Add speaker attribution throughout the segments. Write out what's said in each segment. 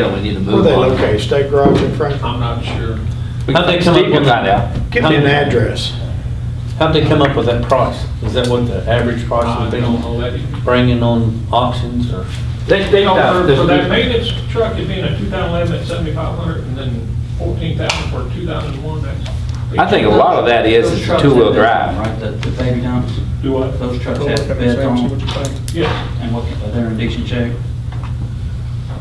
Speaker 1: Yeah, we need to
Speaker 2: Where
Speaker 1: move
Speaker 2: they
Speaker 1: on.
Speaker 2: located, state garage in Franklin?
Speaker 3: I'm not sure.
Speaker 4: How'd they come up
Speaker 1: Steve can
Speaker 4: with
Speaker 1: find out.
Speaker 4: that?
Speaker 2: Give me an address.
Speaker 4: How'd they come up with that price? Is that what the average price
Speaker 3: I
Speaker 4: would
Speaker 3: don't
Speaker 4: be
Speaker 3: know that. You
Speaker 4: bringing on auctions or?
Speaker 1: They, they,
Speaker 3: know, for- for that
Speaker 1: uh,
Speaker 3: maintenance truck, it'd be in a 2011 at 7,500 and then 14,000 for a 2001, that's.
Speaker 1: I think a lot of that is, is the two-wheel drive.
Speaker 5: Right, the, the baby dumps,
Speaker 3: Do what?
Speaker 5: those trucks have beds on
Speaker 3: Yes,
Speaker 5: and what, they're in decent shape.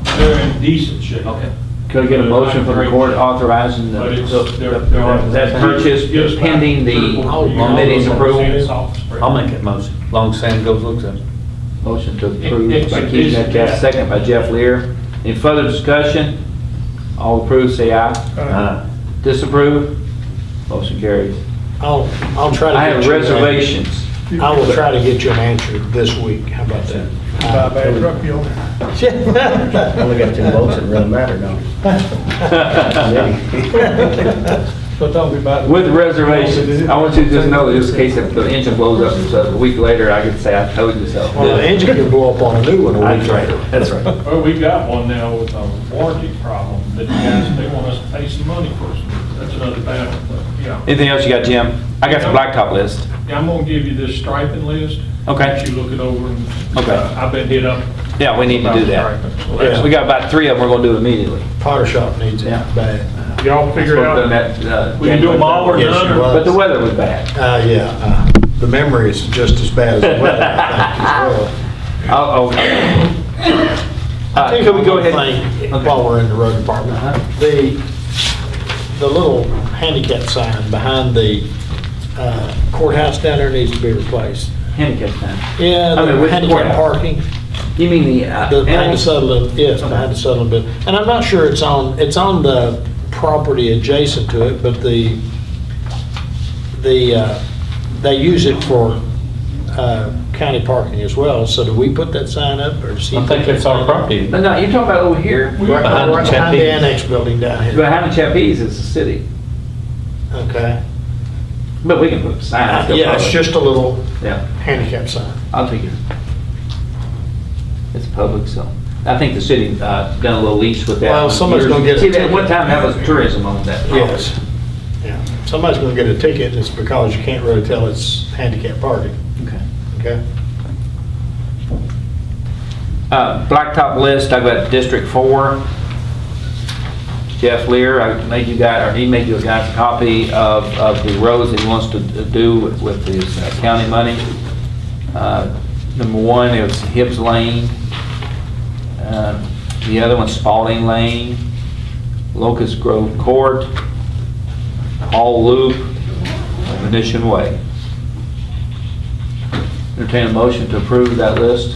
Speaker 3: they're in decent shape.
Speaker 5: Okay.
Speaker 1: Could I get a motion from the court authorizing the,
Speaker 3: But it's-
Speaker 1: the-
Speaker 3: they're-
Speaker 1: the-
Speaker 3: they're-
Speaker 1: that purchase
Speaker 3: Yes,
Speaker 1: pending the Oh,
Speaker 3: three or four years.
Speaker 1: committee's
Speaker 3: Sand
Speaker 1: approval?
Speaker 3: salt spray.
Speaker 4: I'll make that motion, long as Sam goes looks at it.
Speaker 1: Motion to approve by
Speaker 3: It's-
Speaker 1: Keith
Speaker 3: it's-
Speaker 1: Metcalf, second by Jeff Lear. Any further discussion? All approve, say aye. Aye. Disapprove? Motion carries.
Speaker 2: I'll, I'll try to.
Speaker 1: I
Speaker 2: get
Speaker 1: have
Speaker 2: you an-
Speaker 1: reservations.
Speaker 2: I will try to get you an answer this week. How about that?
Speaker 6: Buy a bad truck, you'll.
Speaker 7: Only got two votes, it doesn't matter, don't it?
Speaker 6: So tell me about it.
Speaker 1: With reservations, I want you to just know, just in case if the engine blows up, so a week later, I can say, I told you so.
Speaker 2: Well, the engine could blow up on a new one a
Speaker 1: That's
Speaker 2: week
Speaker 1: right,
Speaker 2: later.
Speaker 1: that's right.
Speaker 3: Well, we got one now with a warranty problem that you guys, they want us to pay some money for. That's another battle, but yeah.
Speaker 1: Anything else you got, Jim? I got the blacktop list.
Speaker 3: Yeah, I'm gonna give you this striping list.
Speaker 1: Okay.
Speaker 3: Let you look it over and.
Speaker 1: Okay.
Speaker 3: Uh, I've been hit up.
Speaker 1: Yeah, we need to do that.
Speaker 2: Yeah.
Speaker 1: We got about three of them we're gonna do immediately.
Speaker 2: Potter shop needs it
Speaker 1: Yeah.
Speaker 2: bad.
Speaker 3: Y'all figure it
Speaker 1: Spoke on
Speaker 3: out.
Speaker 1: that, uh,
Speaker 3: We can do them all or
Speaker 2: Yes,
Speaker 3: none.
Speaker 2: you
Speaker 3: or-
Speaker 2: will.
Speaker 1: But the weather was bad.
Speaker 2: Uh, yeah, uh, the memory is just as bad as the weather, I think, as well.
Speaker 1: Oh, okay. Uh, Can we go ahead?
Speaker 2: Thing,
Speaker 1: Okay.
Speaker 2: While we're in the road department,
Speaker 1: Uh-huh.
Speaker 2: the, the little handicap sign behind the uh, courthouse down there needs to be replaced.
Speaker 1: Handicap sign.
Speaker 2: Yeah,
Speaker 1: I mean,
Speaker 2: the
Speaker 1: which
Speaker 2: handicap
Speaker 1: courthouse?
Speaker 2: parking,
Speaker 1: You mean the, uh,
Speaker 2: the- behind
Speaker 1: animal-
Speaker 2: the settlement, yes, behind the settlement bit. And I'm not sure it's on, it's on the property adjacent to it, but the, the, uh, they use it for uh, county parking as well. So do we put that sign up or? does he
Speaker 4: I think
Speaker 2: put that
Speaker 4: that's our
Speaker 2: sign up?
Speaker 4: property.
Speaker 1: No, no, you're talking about over here?
Speaker 2: Right
Speaker 4: Behind the
Speaker 2: right behind the
Speaker 4: Chappies.
Speaker 2: annex building down here.
Speaker 1: Behind the Chappies is the city,
Speaker 2: Okay.
Speaker 1: but we can put signs. up.
Speaker 2: Yeah, it's just a little
Speaker 1: Yeah.
Speaker 2: handicap sign.
Speaker 1: I'll take it. It's public, so. I think the city uh, done a little lease with that.
Speaker 2: Well,
Speaker 1: one.
Speaker 2: somebody's gonna get a
Speaker 1: See, at
Speaker 2: ticket.
Speaker 1: one time, that was tourism on that. property.
Speaker 2: Yes. Yeah. Somebody's gonna get a ticket, it's because you can't really tell it's handicap parking,
Speaker 1: Okay.
Speaker 2: okay?
Speaker 1: Uh, Blacktop list, I've got District Four. Jeff Lear, I made you guys, or he made you guys a copy of, of the roads that he wants to do with- with his uh, county money. Uh, Number one is Hibbs Lane. Uh, The other one's Spalding Lane, Locust Grove Court, Hall Loop, and Venetian Way. Entertain a motion to approve that list?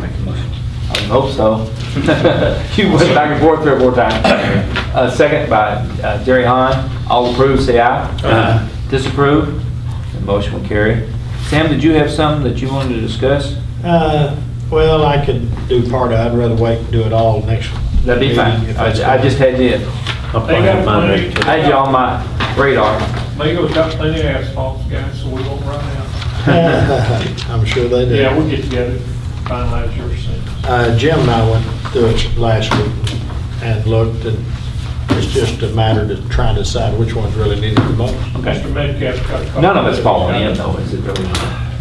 Speaker 5: Make a motion.
Speaker 1: I hope so. You went back and forth three or four times. Uh, Second by uh, Jerry Hahn. All approve, say aye.
Speaker 2: Aye.
Speaker 1: Disapprove? The motion will carry. Sam, did you have something that you wanted to discuss?
Speaker 2: Uh, well, I could do part of it, I'd rather wait and do it all next.
Speaker 1: That'd be fine.
Speaker 2: meeting if
Speaker 1: I
Speaker 2: that's
Speaker 1: I just had you,
Speaker 3: They got plenty.
Speaker 1: I had you on my radar.
Speaker 3: Mayo's got plenty of asphalt, guys, so we won't run out.
Speaker 2: cool. I'm sure they do.
Speaker 3: Yeah, we'll get together, finalize your sentence.
Speaker 2: Uh, Jim and I went through it last week and looked, and it's just a matter to try and decide which one's really needed the most.
Speaker 3: Mr. Metcalf's got a couple.
Speaker 1: None of it's falling in though, is it really?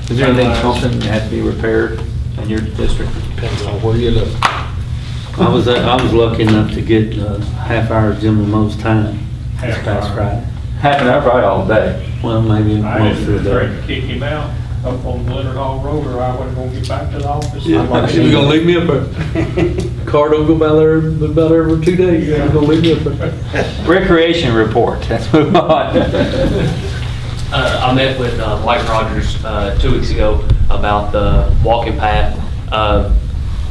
Speaker 1: Is there anything, something that has to be repaired in your district?
Speaker 2: Depends on where you look.
Speaker 8: I was, uh, I was lucky enough to get a half hour of Jim Lamo's time this
Speaker 3: Half
Speaker 8: past
Speaker 3: hour.
Speaker 8: Friday.
Speaker 1: Happened out probably all day.
Speaker 8: Well, maybe
Speaker 3: I
Speaker 8: most
Speaker 3: had
Speaker 8: of
Speaker 3: to
Speaker 8: the day.
Speaker 3: threaten to kick him out up on Leonard Hall Road, or I wasn't gonna get back to the office.
Speaker 6: She was gonna leave me up there. Car don't go by there, about every two days, She was gonna leave me up there.
Speaker 1: Recreation report, let's move on.
Speaker 9: Uh, I met with uh, Mike Rogers uh, two weeks ago about the walking path. Uh,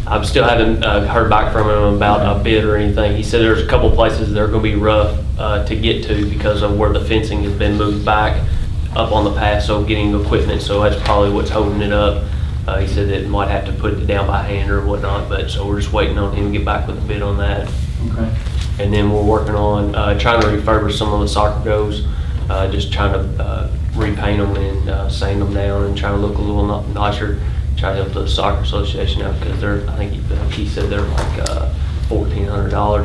Speaker 9: I still haven't uh, heard back from him about a bid or anything. He said there's a couple places that are going to be rough uh, to get to because of where the fencing has been moved back up on the path, so getting equipment, so that's probably what's holding it up. Uh, He said that might have to put it down by hand or whatnot, but, so we're just waiting on him to get back with a bid on that.
Speaker 1: Okay.
Speaker 9: And then we're working on, uh, trying to refurbish some of the soccer goals, uh, just trying to, uh, repaint them and, uh, sand them down and try to look a little ni- nicer. Try to help the soccer association out because they're, I think he- he said they're like, uh, $1,400.